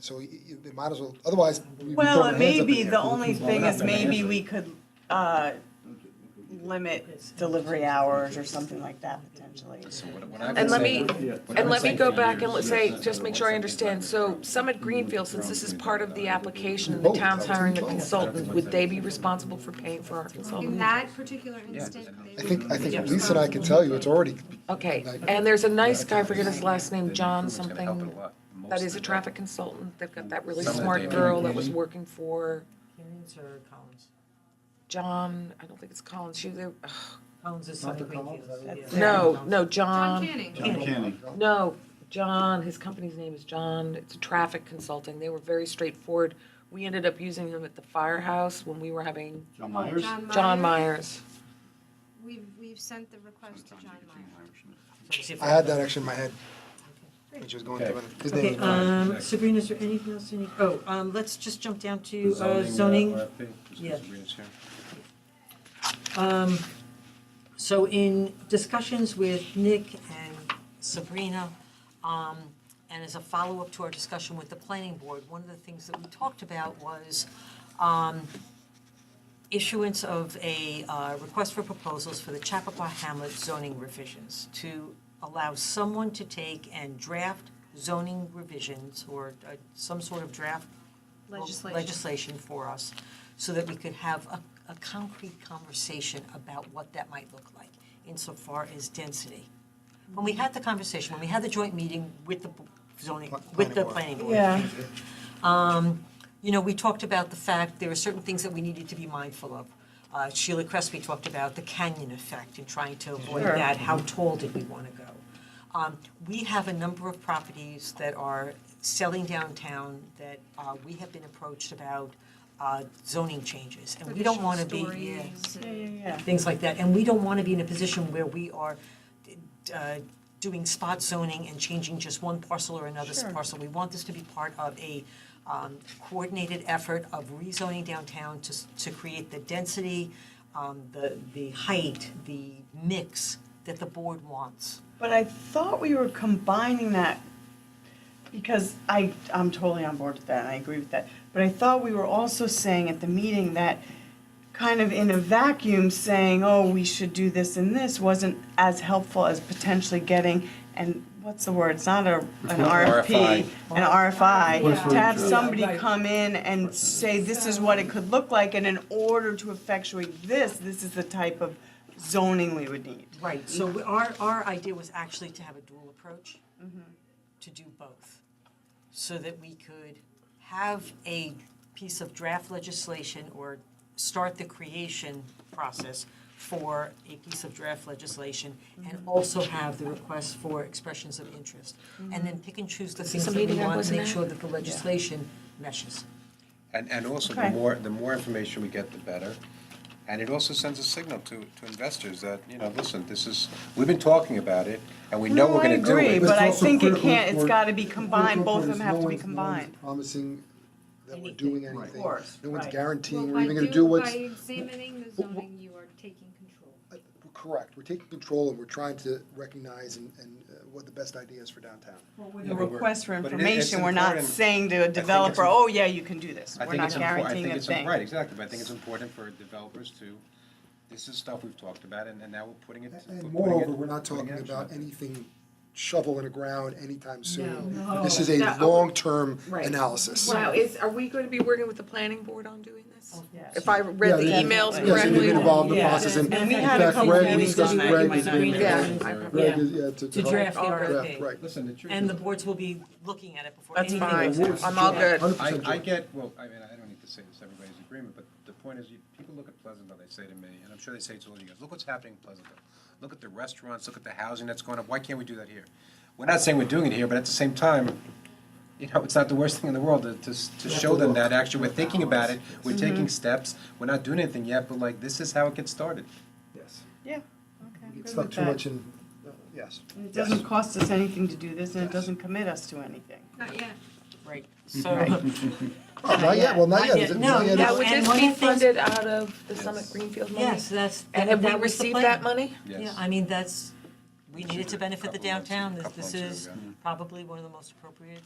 So you, you they might as well, otherwise. we- we Well, throw our it hands may up be, in the the air. only thing that's is not gonna maybe happen. we could uh, limit delivery hours or something like that potentially. And let me, and let me go back and let's say, just make sure I understand, so Summit Greenfield, since this is part of the application and the town's hiring the consultant, would they be responsible for paying for our In consultant? that particular instant, I they would. think, I think Lisa and I can tell you, it's already, Okay, and there's a nice guy, I forget his last name, John something, that is a traffic consultant, they've got that really Some of smart them. girl that was working for Kearns or Collins? John, I don't think it's Collins, she, they- ugh, Collins is Sonic Greenfield. That's yeah. no, no, John John, Canning. no, John, his company's name is John, it's a traffic consulting, they were very straightforward. We ended up using them at the firehouse when we were having John Myers? John Myers. We've, we've sent the request to John Meyer. Let's see if I had that actually in my head. When she was going through it. His name Okay, is- um, Sabrina, is there anything else you need, oh, um, let's just jump down to uh, zoning. yeah. Um, so in discussions with Nick and Sabrina, um, and as a follow-up to our discussion with the planning board, one of the things that we talked about was, um, issuance of a, uh, request for proposals for the Chappaqua Hamlet zoning revisions to allow someone to take and draft zoning revisions or, uh, some sort of draft Legislation. legislation for us, so that we could have a, a concrete conversation about what that might look like insofar as density. When we had the conversation, when we had the joint meeting with the zoning, Pla- with the planning planning board. Yeah. Um, you know, we talked about the fact there are certain things that we needed to be mindful of. Uh, Sheila Crespi talked about the canyon effect and trying to avoid that, how tall did we wanna go? Um, we have a number of properties that are selling downtown that, uh, we have been approached about, uh, zoning changes, and we don't wanna be, yeah, Yeah, yeah, yeah. things like that, and we don't wanna be in a position where we are, uh, doing spot zoning and changing just one parcel or another Sure. parcel. We want this to be part of a, um, coordinated effort of rezoning downtown to, s- to create the density, um, the, the height, the mix that the board wants. But I thought we were combining that, because I, I'm totally on board with that, and I agree with that. But I thought we were also saying at the meeting that, kind of in a vacuum, saying, oh, we should do this and this, wasn't as helpful as potentially getting, and what's the word, it's not a, an RFP, an RFI, to have somebody come in and say, this is what it could look like, and in order to effectuate this, this is the type of zoning we would need. Right, so we- our, our idea was actually to have a dual approach, to do both, so that we could have a piece of draft legislation or start the creation process for a piece of draft legislation and also have the request for expressions of interest. And then pick and choose the things that we meeting I want to wasn't make at? sure that the legislation meshes. And, and also, Okay. the more, the more information we get, the better. And it also sends a signal to, to investors that, you know, listen, this is, we've been talking about it, and we know No, we're I gonna do it. agree, But but it's I also think it critical can't, it's for- gotta be combined, both of Critical them have to point be is no one's- no combined. one's Promising that we're doing Anything. anything. course, No one's right. guaranteeing Well, we're by even gonna do- do By what's, examining the Well, well- zoning, you are taking control. correct, we're taking control and we're trying to recognize and, and uh, what the best idea is for downtown. The but we're- request for but it- it's information, we're not important. saying to a developer, im- oh, yeah, you can do this. I We're think not it's impor- I guaranteeing think a it's im- Right, thing. exactly, but I think it's important for developers to, this is stuff we've talked about, and, and now we're putting it. we're And putting moreover, it- we're not putting talking action about on it. anything shovel in the ground anytime soon. No. This is a No. long-term Right. analysis. Wow, is, are we going to be working with the planning board on doing this? Oh, If I Yeah, read the they- emails yeah, so they've correctly? been involved in the Yeah. process, and And in we had a fact, couple Greg, we meetings discussed, on that, you Greg might is not being remember. involved. Yeah, I- Greg is, yeah, to. To draft the Draft, RFP. right. Listen, the truth is- And the boards will be looking at it before That's anything fine. goes out. I'm all good. I, 100% I joy. get, well, I mean, I don't need to say this, everybody's agreement, but the point is, you, people look at Pleasantville, they say to me, and I'm sure they say to all you guys, look what's happening in Pleasantville. Look at the restaurants, look at the housing that's going up, why can't we do that here? We're not saying we're doing it here, but at the same time, you know, it's not the worst thing in the world to, to, s- to show them that, actually, we're thinking about it, we're Mm-hmm. taking steps, we're not doing anything yet, but like, this is how it gets started. Yes. Yeah, okay, It's good not with too much that. in, yes. And It doesn't cost us anything to do this, and it doesn't commit us to anything. Not yet. Right, so. Oh, not yet, well, not Not yet. yet. Is it- No, not yet. Now, no, It's- would And this one be of the things- funded out of the Summit Greenfield money? Yes, that's, And have we that was the received plan. that money? Yeah, Yes. I mean, that's, we need it to benefit the Couple months- downtown, this, couple this months is ago, yeah. probably one of the most appropriate